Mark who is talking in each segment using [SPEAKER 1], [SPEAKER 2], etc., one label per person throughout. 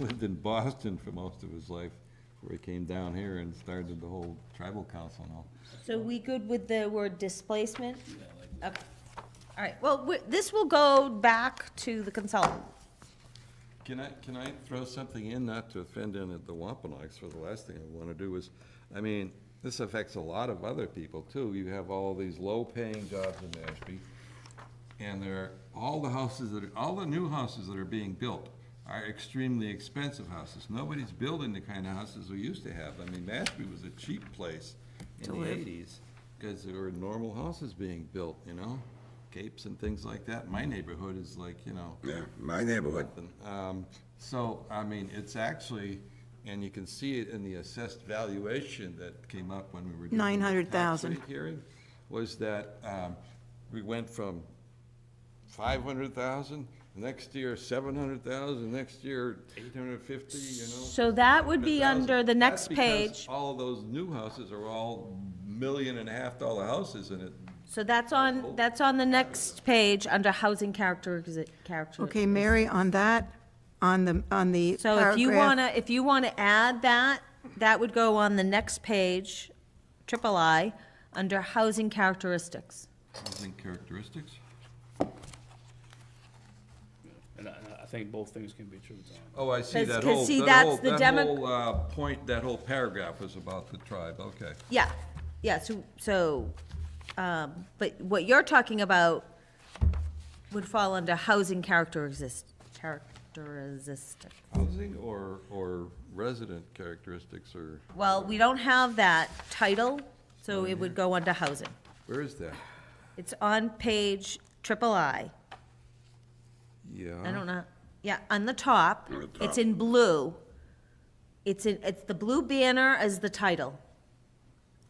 [SPEAKER 1] lived in Boston for most of his life, before he came down here and started the whole tribal council and all.
[SPEAKER 2] So we good with the word displacement? Okay. All right, well, we- this will go back to the consultant.
[SPEAKER 1] Can I, can I throw something in, not to offend in at the Wampanoags, for the last thing I want to do is, I mean, this affects a lot of other people too. You have all these low-paying jobs in Mashpee, and there, are all the houses that, are all the new houses that are being built are extremely expensive houses. Nobody's building the kind of houses we used to have. I mean, Mashpee was a cheap place in the eighties, because there were normal houses being built, you know? Capes and things like that. My neighborhood is like, you know,
[SPEAKER 3] Yeah, my neighborhood.
[SPEAKER 1] happen. Um, So, I mean, it's actually, and you can see it in the assessed valuation that came up when we were doing the tax
[SPEAKER 4] 900,000.
[SPEAKER 1] rate hearing, was that um, we went from 500,000, next year 700,000, next year 850, you know?
[SPEAKER 2] So that would be
[SPEAKER 1] 100,000.
[SPEAKER 2] under the next
[SPEAKER 1] That's because
[SPEAKER 2] page.
[SPEAKER 1] all of those new houses are all million and a half dollar houses, and it,
[SPEAKER 2] So that's
[SPEAKER 1] Oh.
[SPEAKER 2] on, that's on the next page, under housing characteristics.
[SPEAKER 4] Okay, Mary, on that, on the, on the
[SPEAKER 2] So if you
[SPEAKER 4] paragraph-
[SPEAKER 2] want to, if you want to add that, that would go on the next page, triple I, under housing characteristics.
[SPEAKER 1] housing characteristics.
[SPEAKER 5] And I, and I think both things can be true, Tom.
[SPEAKER 1] Oh, I see
[SPEAKER 2] 'Cause-
[SPEAKER 1] that
[SPEAKER 2] 'cause
[SPEAKER 1] whole,
[SPEAKER 2] see,
[SPEAKER 1] that
[SPEAKER 2] that's
[SPEAKER 1] whole,
[SPEAKER 2] the
[SPEAKER 1] that
[SPEAKER 2] demo-
[SPEAKER 1] whole, uh, point, that whole paragraph was about the tribe, okay.
[SPEAKER 2] Yeah, yeah, so, so, um, but what you're talking about would fall under housing characteristic, characteristic.
[SPEAKER 1] Housing or, or resident characteristics, or,
[SPEAKER 2] Well, we don't have that title, so it would go under housing.
[SPEAKER 1] where is that?
[SPEAKER 2] It's on page triple I.
[SPEAKER 1] Yeah.
[SPEAKER 2] I don't know, yeah, on the top,
[SPEAKER 3] On the
[SPEAKER 2] it's
[SPEAKER 3] top.
[SPEAKER 2] in blue. It's in, it's the blue banner as the title,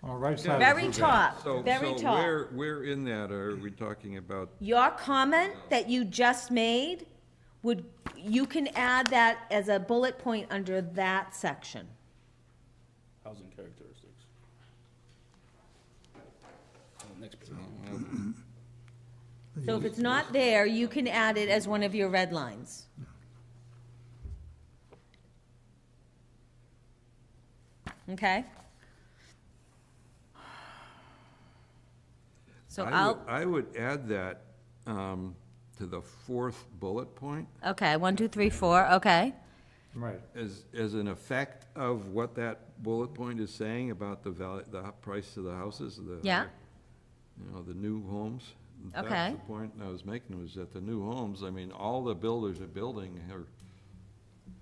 [SPEAKER 6] On the right side. of the
[SPEAKER 2] very
[SPEAKER 6] blue banner.
[SPEAKER 2] top,
[SPEAKER 1] So,
[SPEAKER 2] very
[SPEAKER 1] so
[SPEAKER 2] top.
[SPEAKER 1] where, where in that are we talking about,
[SPEAKER 2] Your comment that you just made would, you can add that as a bullet point under that section.
[SPEAKER 5] Housing characteristics. On the next page.
[SPEAKER 2] So if it's not there, you can add it as one of your red lines. Okay? So
[SPEAKER 1] I would,
[SPEAKER 2] I'll,
[SPEAKER 1] I would add that, um, to the fourth bullet point,
[SPEAKER 2] okay, one, two, three, four, okay.
[SPEAKER 6] Right.
[SPEAKER 1] as, as an effect of what that bullet point is saying about the value, the price of the houses, the.
[SPEAKER 2] Yeah.
[SPEAKER 1] You know, the new homes.
[SPEAKER 2] Okay.
[SPEAKER 1] That's the point I was making, was that the new homes, I mean, all the builders are building are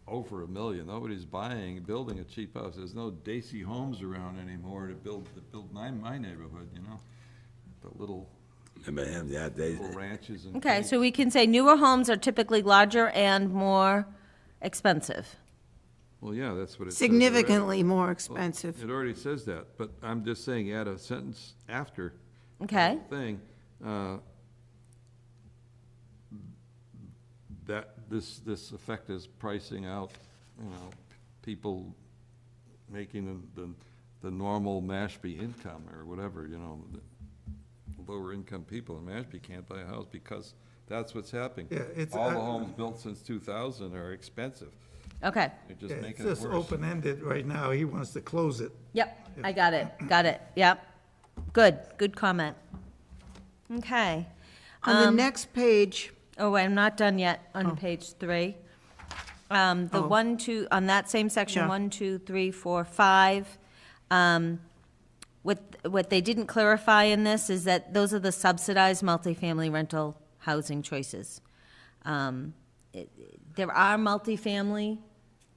[SPEAKER 1] over a million. Nobody's buying, building a cheap house. There's no Daisy homes around anymore to build, to build my, my neighborhood, you know? The little,
[SPEAKER 3] Remember him the other day?
[SPEAKER 1] little ranches and.
[SPEAKER 2] Okay,
[SPEAKER 1] caves.
[SPEAKER 2] so we can say newer homes are typically larger and more expensive.
[SPEAKER 1] Well, yeah, that's what it says already.
[SPEAKER 4] Significantly more expensive.
[SPEAKER 1] It already says that, but I'm just saying add a sentence after. the
[SPEAKER 2] Okay.
[SPEAKER 1] whole Thing, uh, that, this, this effect is pricing out, you know, people making the, the, the normal Mashpee income or whatever, you know, the lower income people in Mashpee can't buy a house because that's what's happening.
[SPEAKER 7] Yeah, it's-
[SPEAKER 1] All the
[SPEAKER 7] I-
[SPEAKER 1] homes built since two thousand are expensive.
[SPEAKER 2] Okay,
[SPEAKER 1] They're
[SPEAKER 7] Yeah,
[SPEAKER 1] just
[SPEAKER 7] It's
[SPEAKER 1] making it
[SPEAKER 7] just
[SPEAKER 1] worse.
[SPEAKER 7] open-ended right now. He wants to close it.
[SPEAKER 2] yep, I got it, got it, yep. Good, good comment. Okay.
[SPEAKER 4] On
[SPEAKER 2] um,
[SPEAKER 4] the next page,
[SPEAKER 2] Oh, I'm not done yet on page three. Um, the one, two, on that same section,
[SPEAKER 4] Yeah.
[SPEAKER 2] one, two, three, four, five. Um, what, what they didn't clarify in this is that those are the subsidized multifamily rental housing choices. Um, it- there are multifamily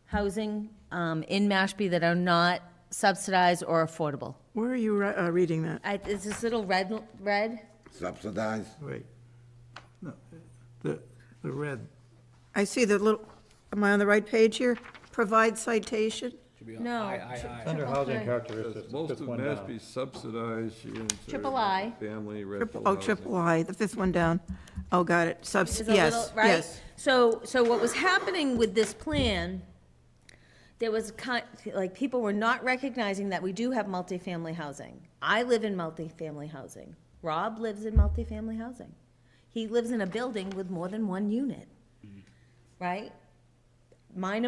[SPEAKER 2] housing, um, in Mashpee that are not subsidized or affordable.
[SPEAKER 4] where are you re- uh, reading that?
[SPEAKER 2] I, it's this little red, red,
[SPEAKER 3] Subsidized?
[SPEAKER 7] Wait. No, the, the red.
[SPEAKER 4] I see the little, am I on the right page here? Provide citation?
[SPEAKER 5] Should be on
[SPEAKER 2] No.
[SPEAKER 5] I, I, I.
[SPEAKER 6] Under
[SPEAKER 2] Okay.
[SPEAKER 6] housing characteristics, the
[SPEAKER 1] Most of
[SPEAKER 6] fifth one down.
[SPEAKER 1] Mashpee subsidized units. are
[SPEAKER 2] Triple I.
[SPEAKER 1] Family rental
[SPEAKER 4] Triple- Oh,
[SPEAKER 1] housing.
[SPEAKER 4] triple I, the fifth one down. Oh, got it, subs,
[SPEAKER 2] is a
[SPEAKER 4] yes,
[SPEAKER 2] little- right?
[SPEAKER 4] yes.
[SPEAKER 2] So, so what was happening with this plan, there was kind, like, people were not recognizing that we do have multifamily housing. I live in multifamily housing. Rob lives in multifamily housing.
[SPEAKER 5] Mm-hmm.
[SPEAKER 2] He lives in a building with more than one unit, right? Mine and